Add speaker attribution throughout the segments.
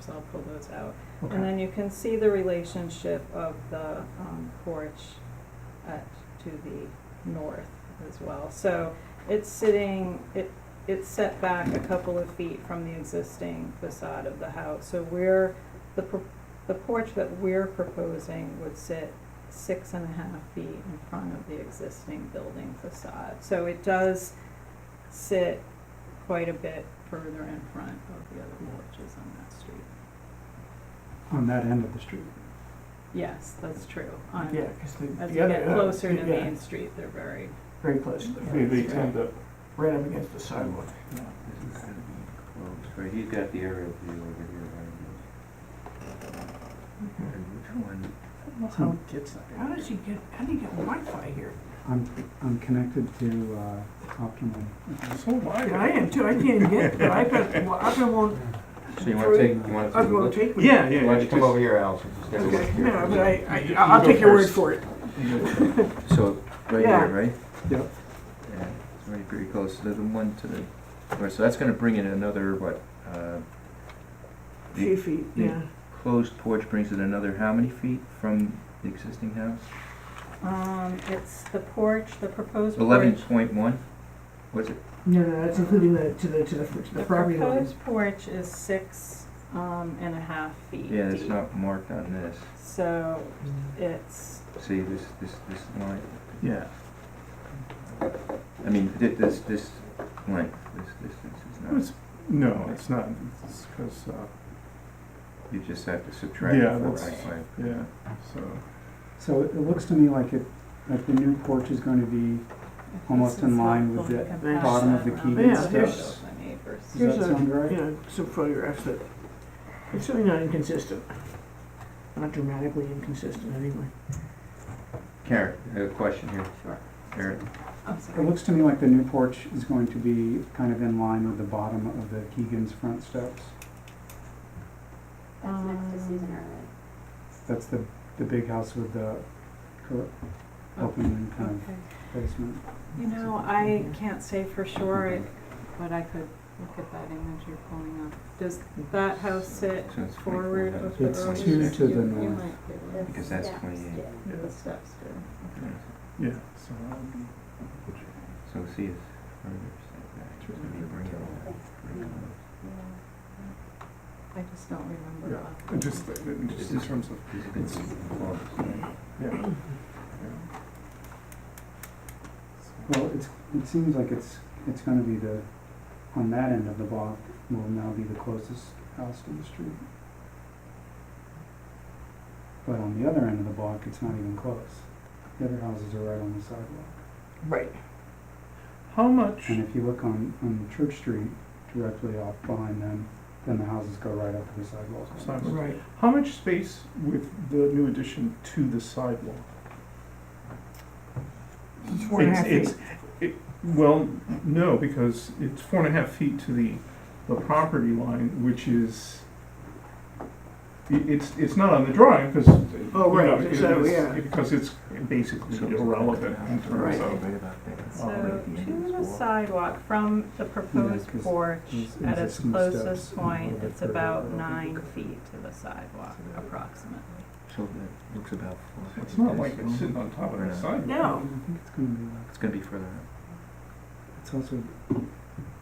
Speaker 1: so I'll pull those out.
Speaker 2: Okay.
Speaker 1: And then you can see the relationship of the um, porch at, to the north as well. So it's sitting, it, it's set back a couple of feet from the existing facade of the house. So we're, the, pro- the porch that we're proposing would sit six and a half feet in front of the existing building facade. So it does sit quite a bit further in front of the other porches on that street.
Speaker 2: On that end of the street.
Speaker 1: Yes, that's true. On-
Speaker 2: Yeah, because the,
Speaker 1: As we
Speaker 2: the other.
Speaker 3: uh,
Speaker 1: get closer to
Speaker 2: yeah,
Speaker 1: Main Street, they're very,
Speaker 2: Very close to the.
Speaker 3: They,
Speaker 2: road,
Speaker 3: they
Speaker 2: yeah.
Speaker 3: tend to,
Speaker 2: Right up against the sidewalk, yeah.
Speaker 4: This is gonna be close, right, he's got the aerial view over here, right? And which one? I don't know how it gets up there.
Speaker 3: how does he get, how do you get Wi-Fi here?
Speaker 2: I'm, I'm connected to, uh, Optimum.
Speaker 3: So wide. I am too, I can't even get, but iPad, well, iPad won't,
Speaker 4: So you wanna take, you wanna take
Speaker 3: iPad
Speaker 4: a
Speaker 3: won't
Speaker 4: look?
Speaker 3: take me.
Speaker 5: Yeah, yeah.
Speaker 4: Why don't you
Speaker 5: it's
Speaker 4: come
Speaker 5: just-
Speaker 4: over here, Allison, just have a look
Speaker 3: Okay,
Speaker 4: here.
Speaker 3: no, but I, I,
Speaker 5: You-
Speaker 3: I'll
Speaker 5: you go
Speaker 3: take your word
Speaker 5: first.
Speaker 3: for it.
Speaker 4: So, right
Speaker 3: Yeah.
Speaker 4: here, right?
Speaker 2: Yep.
Speaker 4: Yeah, it's really pretty close, the the one to the, all right, so that's gonna bring in another, what, uh,
Speaker 3: Three feet,
Speaker 4: Yeah.
Speaker 3: yeah.
Speaker 4: closed porch brings it another how many feet from the existing house?
Speaker 1: um, it's the porch, the proposed porch.
Speaker 4: Eleven point one, was it?
Speaker 3: No, no, that's including the, to the, to the, to the
Speaker 1: The
Speaker 3: property line.
Speaker 1: proposed porch is six, um, and a half feet
Speaker 4: Yeah, it's
Speaker 1: deep.
Speaker 4: not marked on this,
Speaker 1: So it's,
Speaker 4: see, this, this, this line,
Speaker 5: Yeah,
Speaker 4: I mean, thi- this, this length, this distance is not,
Speaker 5: It's- no, it's not, it's because, uh,
Speaker 4: you just have to subtract
Speaker 5: Yeah,
Speaker 4: four by
Speaker 5: that's-
Speaker 4: five.
Speaker 5: yeah, so,
Speaker 2: So it it looks to me like it, like the new porch is going to be, Almost
Speaker 1: this
Speaker 2: in
Speaker 1: is
Speaker 2: line with
Speaker 1: helpful
Speaker 2: the
Speaker 1: to compare
Speaker 3: bottom
Speaker 2: of the
Speaker 1: around
Speaker 2: Keegan
Speaker 1: the
Speaker 3: steps.
Speaker 1: photos of the neighbors.
Speaker 2: does
Speaker 3: Here's
Speaker 2: that
Speaker 3: a-
Speaker 2: sound right?
Speaker 3: You know, some photographs that, it's really not inconsistent. Not dramatically inconsistent, anyway.
Speaker 4: Karen, I have a question here,
Speaker 1: Sure.
Speaker 4: Karen,
Speaker 1: I'm
Speaker 2: It
Speaker 1: sorry.
Speaker 2: looks to me like the new porch is going to be kind of in line with the bottom of the Keegan's front steps.
Speaker 6: That's next to Susan
Speaker 1: Um,
Speaker 6: Irwin.
Speaker 2: That's the, the big house with the cur- open kind
Speaker 1: Um, Okay.
Speaker 2: of basement.
Speaker 1: You know, I can't say for sure, it- but I could look at that image you're pulling up. Does that house sit
Speaker 4: So it's
Speaker 1: forward of the
Speaker 2: It's
Speaker 1: road?
Speaker 2: two to the
Speaker 1: You- you
Speaker 2: north.
Speaker 1: might be able to-
Speaker 6: The
Speaker 4: Because that's
Speaker 6: steps
Speaker 4: 28.
Speaker 6: did.
Speaker 5: yeah,
Speaker 1: The steps do.
Speaker 5: yeah, so that would be.
Speaker 2: um,
Speaker 4: so see it's further setback, so we bring it all, bring it all.
Speaker 1: I just don't remember.
Speaker 5: Yeah,
Speaker 1: that.
Speaker 5: and just, uh, and just in terms of,
Speaker 4: These are good close.
Speaker 5: yeah. yeah.
Speaker 2: Well, it's, it seems like it's, it's gonna be the, on that end of the block will now be the closest house to the street. But on the other end of the block, it's not even close. The other houses are right on the sidewalk.
Speaker 3: Right.
Speaker 5: How much,
Speaker 2: And if you look on, on Church Street, directly off behind them, then the houses go right up to the sidewalk.
Speaker 5: Sidewalk.
Speaker 3: Right.
Speaker 5: how much space with the new addition to the sidewalk?
Speaker 3: It's four and a
Speaker 5: It's-
Speaker 3: half feet.
Speaker 5: it's- it- Well, no, because it's four and a half feet to the, the property line, which is, i- it's, it's not on the drawing, because.
Speaker 3: Oh, right, so, yeah.
Speaker 5: Because it's basically irrelevant in terms
Speaker 3: Right.
Speaker 5: of,
Speaker 1: So to the sidewalk from the proposed
Speaker 2: 'cause
Speaker 1: porch
Speaker 2: there's
Speaker 1: at its
Speaker 2: existing steps
Speaker 1: closest
Speaker 2: and all
Speaker 1: point,
Speaker 2: that
Speaker 1: it's
Speaker 2: further
Speaker 1: about
Speaker 2: along.
Speaker 1: nine feet to the sidewalk approximately.
Speaker 4: So that looks about four.
Speaker 5: it's not like it's sitting on top of the sidewalk.
Speaker 2: I
Speaker 3: No,
Speaker 2: think it's gonna be like,
Speaker 4: It's gonna be further up.
Speaker 2: it's also the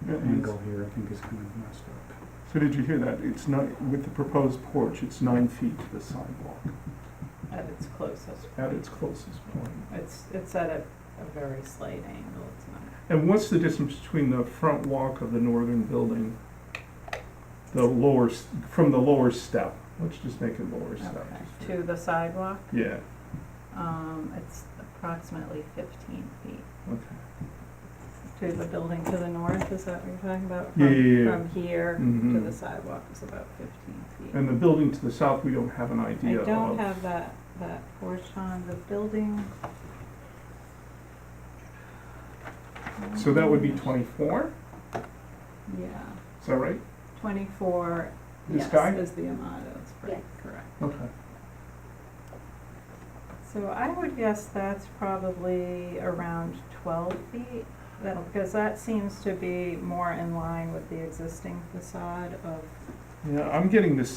Speaker 5: Yeah,
Speaker 2: angle here, I think is kind of messed up.
Speaker 5: So did you hear that? It's not, with the proposed porch, it's nine feet to the sidewalk
Speaker 1: At its closest,
Speaker 5: at its closest point.
Speaker 1: it's, it's at a, a very slight angle, it's not.
Speaker 5: And what's the distance between the front walk of the northern building, the lower, s- from the lower step? Let's just make it lower step.
Speaker 1: Okay, to the sidewalk,
Speaker 5: Yeah,
Speaker 1: um, it's approximately fifteen feet
Speaker 5: okay.
Speaker 1: to the building to the north, is that what you're talking about?
Speaker 5: Yeah,
Speaker 1: From-
Speaker 5: yeah, yeah.
Speaker 1: From here to the
Speaker 5: Mhm.
Speaker 1: sidewalk is about fifteen feet.
Speaker 5: And uh, the building to the south, we don't have an
Speaker 1: I
Speaker 5: idea of.
Speaker 1: don't have that, that portion on the building.
Speaker 5: So that would be twenty-four,
Speaker 1: Yeah,
Speaker 5: is that right?
Speaker 1: twenty-four,
Speaker 5: This
Speaker 1: yes,
Speaker 5: guy?
Speaker 1: is the Amato, that's pretty
Speaker 6: Yes.
Speaker 1: correct.
Speaker 5: Okay.
Speaker 1: So I would guess that's probably around twelve feet, that, because that seems to be more in line with the existing facade of
Speaker 5: Yeah, I'm getting this